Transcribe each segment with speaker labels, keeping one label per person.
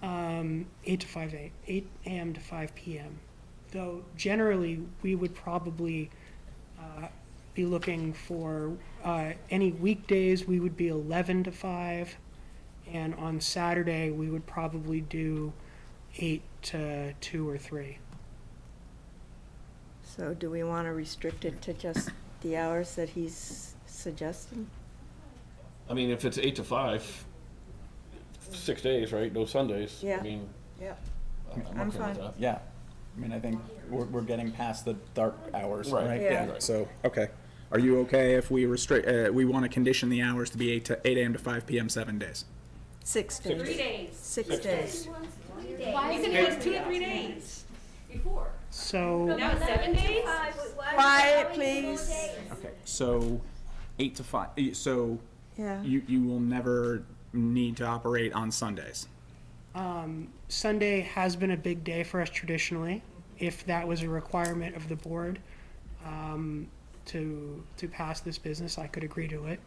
Speaker 1: from um, eight to five a, eight AM to five PM. Though generally, we would probably uh, be looking for, uh, any weekdays, we would be eleven to five. And on Saturday, we would probably do eight to two or three.
Speaker 2: So do we want to restrict it to just the hours that he's suggesting?
Speaker 3: I mean, if it's eight to five, six days, right? No Sundays.
Speaker 2: Yeah.
Speaker 3: I mean,
Speaker 2: Yep.
Speaker 3: I- I'm,
Speaker 2: I'm
Speaker 3: okay
Speaker 2: fine.
Speaker 3: with that.
Speaker 4: Yeah, I mean, I think we're, we're getting past the dark hours,
Speaker 3: Right,
Speaker 4: right?
Speaker 2: Yeah.
Speaker 3: right.
Speaker 4: So, okay. Are you okay if we restrict, uh, we want to condition the hours to be eight to, eight AM to five PM, seven days?
Speaker 2: Six
Speaker 5: Three
Speaker 2: days.
Speaker 5: days.
Speaker 2: Six days.
Speaker 5: Why isn't it just two to three days? Before.
Speaker 1: So,
Speaker 5: Now it's seven days?
Speaker 2: Quiet, please.
Speaker 4: Okay, so eight to five, eh, so
Speaker 2: Yeah.
Speaker 4: you, you will never need to operate on Sundays?
Speaker 1: Sunday has been a big day for us traditionally, if that was a requirement of the board um, to, to pass this business, I could agree to it.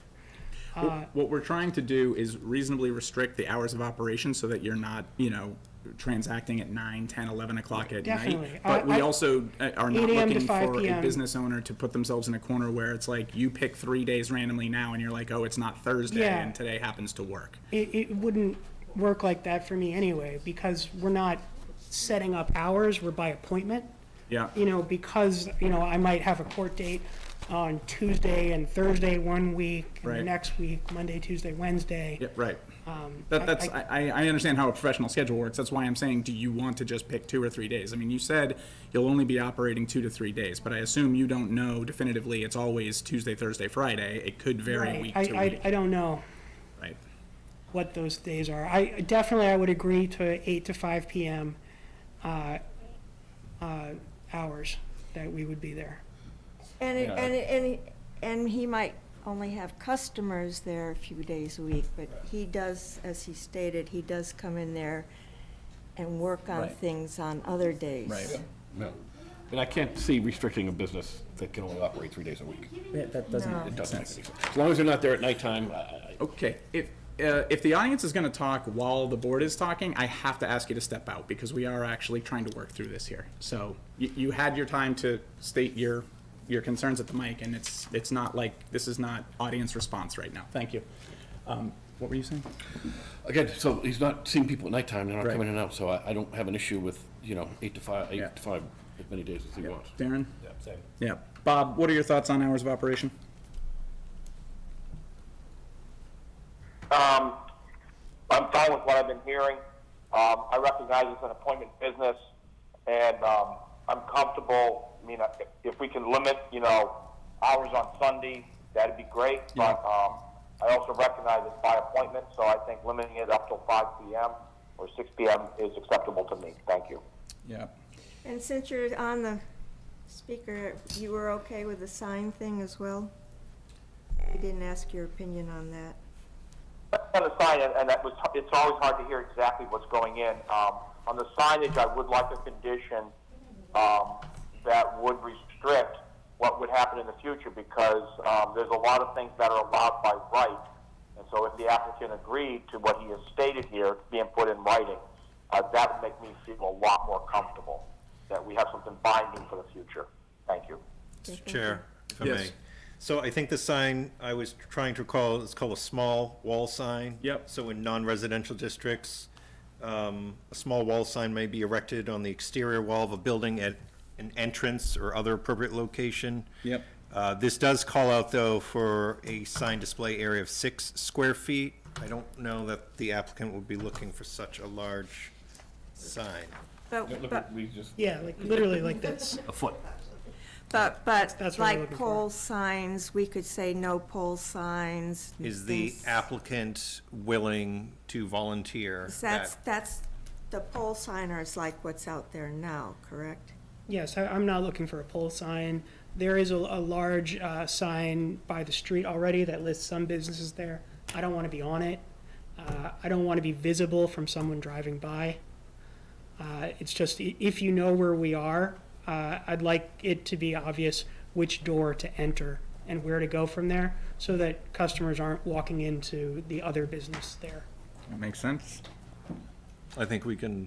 Speaker 4: What- What we're trying to do is reasonably restrict the hours of operation so that you're not, you know, transacting at nine, ten, eleven o'clock at night.
Speaker 1: Definitely.
Speaker 4: But
Speaker 1: I- I-
Speaker 4: we also uh, are not
Speaker 1: 8 a.m. to
Speaker 4: looking
Speaker 1: 5
Speaker 4: for a
Speaker 1: p.m..
Speaker 4: business owner to put themselves in a corner where it's like, you pick three days randomly now and you're like, oh, it's not Thursday
Speaker 1: Yeah.
Speaker 4: and today happens to work.
Speaker 1: It, it wouldn't work like that for me anyway, because we're not setting up hours, we're by appointment.
Speaker 4: Yeah,
Speaker 1: You know, because, you know, I might have a court date on Tuesday and Thursday one week, and the
Speaker 4: Right.
Speaker 1: next week, Monday, Tuesday, Wednesday.
Speaker 4: yeah, right.
Speaker 1: I-
Speaker 4: That, that's,
Speaker 1: Um, I-
Speaker 4: I, I I understand how a professional schedule works. That's why I'm saying, do you want to just pick two or three days? I mean, you said you'll only be operating two to three days, but I assume you don't know definitively it's always Tuesday, Thursday, Friday. It could vary
Speaker 1: Right.
Speaker 4: week
Speaker 1: I,
Speaker 4: to
Speaker 1: I,
Speaker 4: week.
Speaker 1: I don't know
Speaker 4: Right.
Speaker 1: what those days are. I, definitely I would agree to eight to five PM, uh, uh, hours that we would be there.
Speaker 2: And, it-
Speaker 3: Yeah.
Speaker 2: and, it- and, it- and he might only have customers there a few days a week, but he does, as he stated, he does come in there and work on
Speaker 4: Right.
Speaker 2: things on other days.
Speaker 4: Right.
Speaker 3: No. And I can't see restricting a business that can only operate three days a week.
Speaker 4: that
Speaker 2: No.
Speaker 3: It doesn't make any sense. As long as they're not there at nighttime, I- I,
Speaker 4: Okay, if, uh, if the audience is gonna talk while the board is talking, I have to ask you to step out, because we are actually trying to work through this here. So, you, you had your time to state your, your concerns at the mic, and it's, it's not like, this is not audience response right now, thank you. Um, what were you saying?
Speaker 3: again, so he's not seeing people at nighttime, they're not
Speaker 4: Right.
Speaker 3: coming in and out, so I, I don't have an issue with, you know, eight to five,
Speaker 4: Yeah.
Speaker 3: eight to five, as many days as he wants.
Speaker 4: Darren?
Speaker 3: Yeah, same.
Speaker 4: Yeah, Bob, what are your thoughts on hours of operation?
Speaker 6: Um, I'm fine with what I've been hearing. Um, I recognize it's an appointment business, and um, I'm comfortable. I mean, if, if we can limit, you know, hours on Sunday, that'd be great. But um, I also recognize it's by appointment, so I think limiting it up till 5 p.m. or 6 p.m. is acceptable to me. Thank you.
Speaker 4: Yeah.
Speaker 2: And since you're on the speaker, you were okay with the sign thing as well? We didn't ask your opinion on that.
Speaker 6: On the sign, and- and that was, it's always hard to hear exactly what's going in. Um, on the signage, I would like a condition, um, that would restrict what would happen in the future because, um, there's a lot of things that are allowed by right. And so if the applicant agreed to what he has stated here, being put in writing, uh, that would make me feel a lot more comfortable, that we have something binding for the future. Thank you.
Speaker 7: Mr. Chair, if I
Speaker 4: Yes.
Speaker 7: may. So I think the sign I was trying to recall, it's called a small wall sign.
Speaker 4: Yep.
Speaker 7: So in non-residential districts, um, a small wall sign may be erected on the exterior wall of a building at an entrance or other appropriate location.
Speaker 4: Yep.
Speaker 7: Uh, This does call out, though, for a sign display area of six square feet. I don't know that the applicant would be looking for such a large sign.
Speaker 2: But,
Speaker 3: Look,
Speaker 2: but,
Speaker 3: we just,
Speaker 1: Yeah, like literally like this.
Speaker 3: a foot.
Speaker 2: but, but
Speaker 1: That's what I'm
Speaker 2: like
Speaker 1: looking for.
Speaker 2: pole signs, we could say no pole signs.
Speaker 7: Is the
Speaker 2: things-
Speaker 7: applicant willing to volunteer?
Speaker 2: That's,
Speaker 7: that-
Speaker 2: that's, the pole signer is like what's out there now, correct?
Speaker 1: Yes, I, I'm not looking for a pole sign. There is a, a large, uh, sign by the street already that lists some businesses there. I don't wanna be on it. Uh, I don't wanna be visible from someone driving by. Uh, it's just, i- if you know where we are, uh, I'd like it to be obvious which door to enter and where to go from there, so that customers aren't walking into the other business there.
Speaker 4: That makes sense.
Speaker 7: I think we can